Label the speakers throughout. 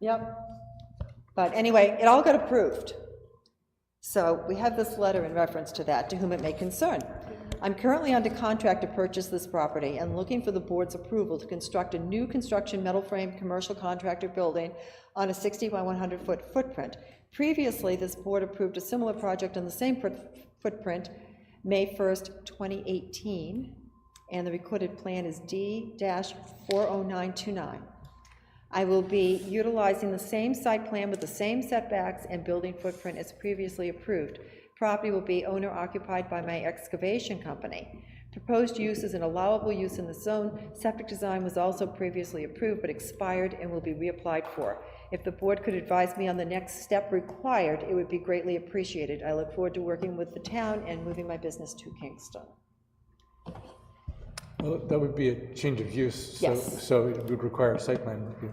Speaker 1: Yep. But anyway, it all got approved. So we have this letter in reference to that, to whom it may concern. I'm currently under contract to purchase this property and looking for the board's approval to construct a new construction metal frame commercial contractor building on a 60 by 100 foot footprint. Previously, this board approved a similar project on the same foot- footprint, May 1st, 2018, and the recorded plan is D-40929. I will be utilizing the same site plan with the same setbacks and building footprint as previously approved. Property will be owner occupied by my excavation company. Proposed use is an allowable use in the zone. Septic design was also previously approved but expired and will be reapplied for. If the board could advise me on the next step required, it would be greatly appreciated. I look forward to working with the town and moving my business to Kingston.
Speaker 2: Well, that would be a change of use. so-
Speaker 1: Yes.
Speaker 2: So it would require a site plan review.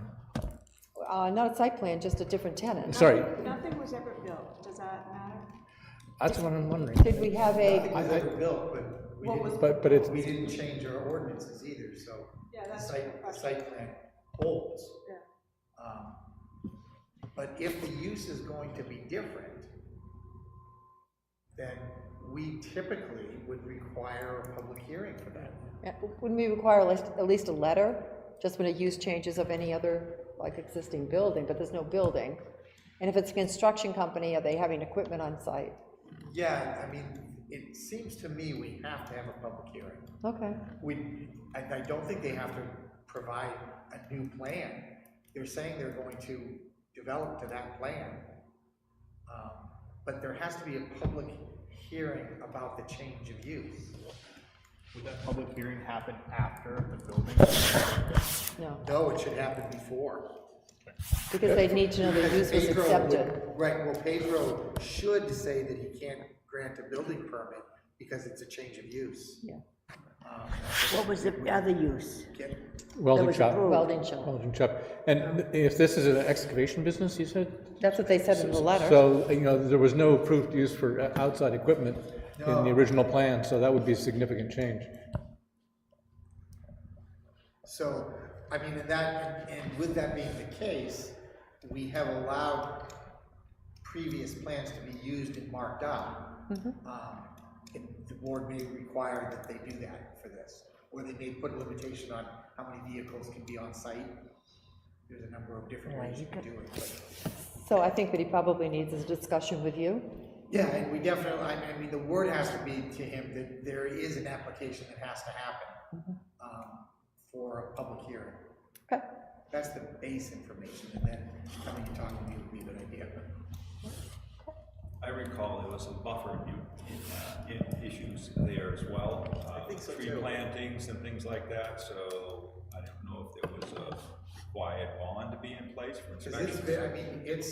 Speaker 1: Uh, Not a site plan, just a different tenant.
Speaker 2: Sorry,
Speaker 3: Nothing was ever built, does that matter?
Speaker 2: that's what I'm wondering.
Speaker 1: Did we have a,
Speaker 4: I think built, but we didn't,
Speaker 2: But, but it's,
Speaker 4: we didn't change our ordinances either, so.
Speaker 3: Yeah,
Speaker 4: the
Speaker 3: that's
Speaker 4: Site,
Speaker 3: my
Speaker 4: the
Speaker 3: question.
Speaker 4: site plan holds.
Speaker 3: Yeah.
Speaker 4: Um, But if the use is going to be different, then we typically would require a public hearing for that.
Speaker 1: Yeah, Wouldn't we require at least, at least a letter, just when a use changes of any other, like, existing building, but there's no building? And if it's a construction company, are they having equipment on site?
Speaker 4: Yeah, I mean, it seems to me we have to have a public hearing.
Speaker 1: Okay,
Speaker 4: We, I, I don't think they have to provide a new plan. They're saying they're going to develop to that plan. Um, But there has to be a public hearing about the change of use.
Speaker 5: Would that public hearing happen after the building?
Speaker 1: no,
Speaker 4: No, it should happen before.
Speaker 1: because they'd need to know the use was
Speaker 4: Pedro would-
Speaker 1: accepted.
Speaker 4: Right, well, Pedro should say that he can't grant a building permit because it's a change of use.
Speaker 1: Yeah,
Speaker 6: What was the other use?
Speaker 4: Can-
Speaker 6: That
Speaker 2: welding
Speaker 6: was
Speaker 2: shop,
Speaker 6: approved.
Speaker 1: welding shop,
Speaker 2: welding shop. And if this is an excavation business, you said?
Speaker 1: that's what they said in the letter.
Speaker 2: So, you know, there was no approved use for uh, outside equipment in the original plan, so that would be a significant change.
Speaker 4: So, I mean, in that, and with that being the case, we have allowed previous plans to be used and marked up. Um, And the board may require that they do that for this, or they may put a limitation on how many vehicles can be on site. There's a number of different ways you can do it, but.
Speaker 1: So I think that he probably needs a discussion with you.
Speaker 4: Yeah, and we definitely, I mean, I mean, the word has to be to him that there is an application that has to happen um, for a public hearing.
Speaker 1: Okay,
Speaker 4: That's the base information, and then coming and talking to you would be a good idea.
Speaker 7: I recall there was some buffer in- in, uh, in issues there as well. uh,
Speaker 4: think so,
Speaker 7: Tree
Speaker 4: too.
Speaker 7: plantings and things like that, so I don't know if there was a required bond to be in place for
Speaker 4: Because it's,
Speaker 7: inspections.
Speaker 4: ve- I mean, it's,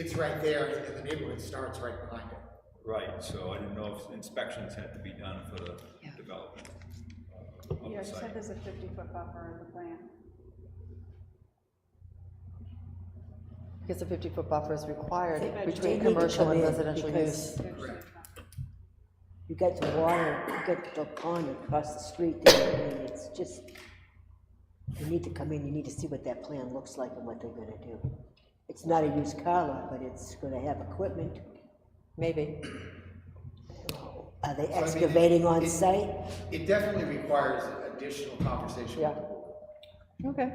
Speaker 4: it's right there, and then the neighborhood starts right behind it.
Speaker 7: Right, so I didn't know if inspections had to be done for the development uh, of
Speaker 3: Yeah,
Speaker 7: the
Speaker 3: it said
Speaker 7: site.
Speaker 3: there's a fifty-foot buffer in the plan.
Speaker 1: because a 50-foot buffer is required
Speaker 6: They
Speaker 1: between
Speaker 6: need to
Speaker 1: commercial
Speaker 6: come
Speaker 1: and
Speaker 6: in
Speaker 1: residential use.
Speaker 6: because You got the water, you got the pond across the street there, I mean, it's just, you need to come in, you need to see what that plan looks like and what they're gonna do. It's not a used car lot, but it's gonna have equipment.
Speaker 1: Maybe,
Speaker 4: So, I
Speaker 6: Are they
Speaker 4: mean, it-
Speaker 6: excavating on
Speaker 4: it-
Speaker 6: site?
Speaker 4: It definitely requires additional conversation with the board.
Speaker 1: okay.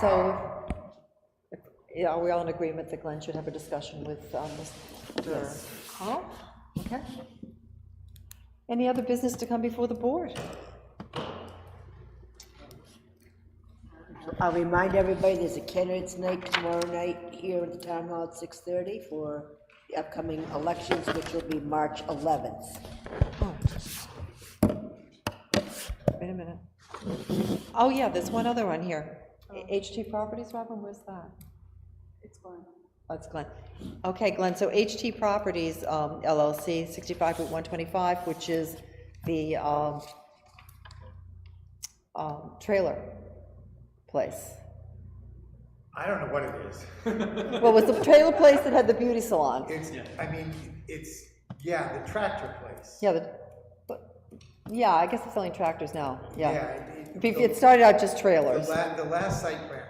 Speaker 1: So, if- yeah, are we all in agreement that Glenn should have a discussion with um, Mr. Hall? Okay. Any other business to come before the board?
Speaker 6: I'll remind everybody, there's a candidates night tomorrow night here at the town hall at six thirty for the upcoming elections, which will be March eleventh.
Speaker 1: Wait a minute. Oh, yeah, there's one other one here. HT Properties, Robin, where's that?
Speaker 3: It's going.
Speaker 1: That's Glenn. Okay, Glenn, so HT Properties um, LLC, 65 Route 125, which is the um, um, trailer place.
Speaker 4: I don't know what it is.
Speaker 1: Well, it was the trailer place that had the beauty salon.
Speaker 4: It's, I mean, it's, yeah, the tractor place.
Speaker 1: Yeah, the- but, yeah, I guess it's selling tractors now, yeah.
Speaker 4: it- it-
Speaker 1: Be- It started out just
Speaker 4: The
Speaker 1: trailers.
Speaker 4: la, the last site plan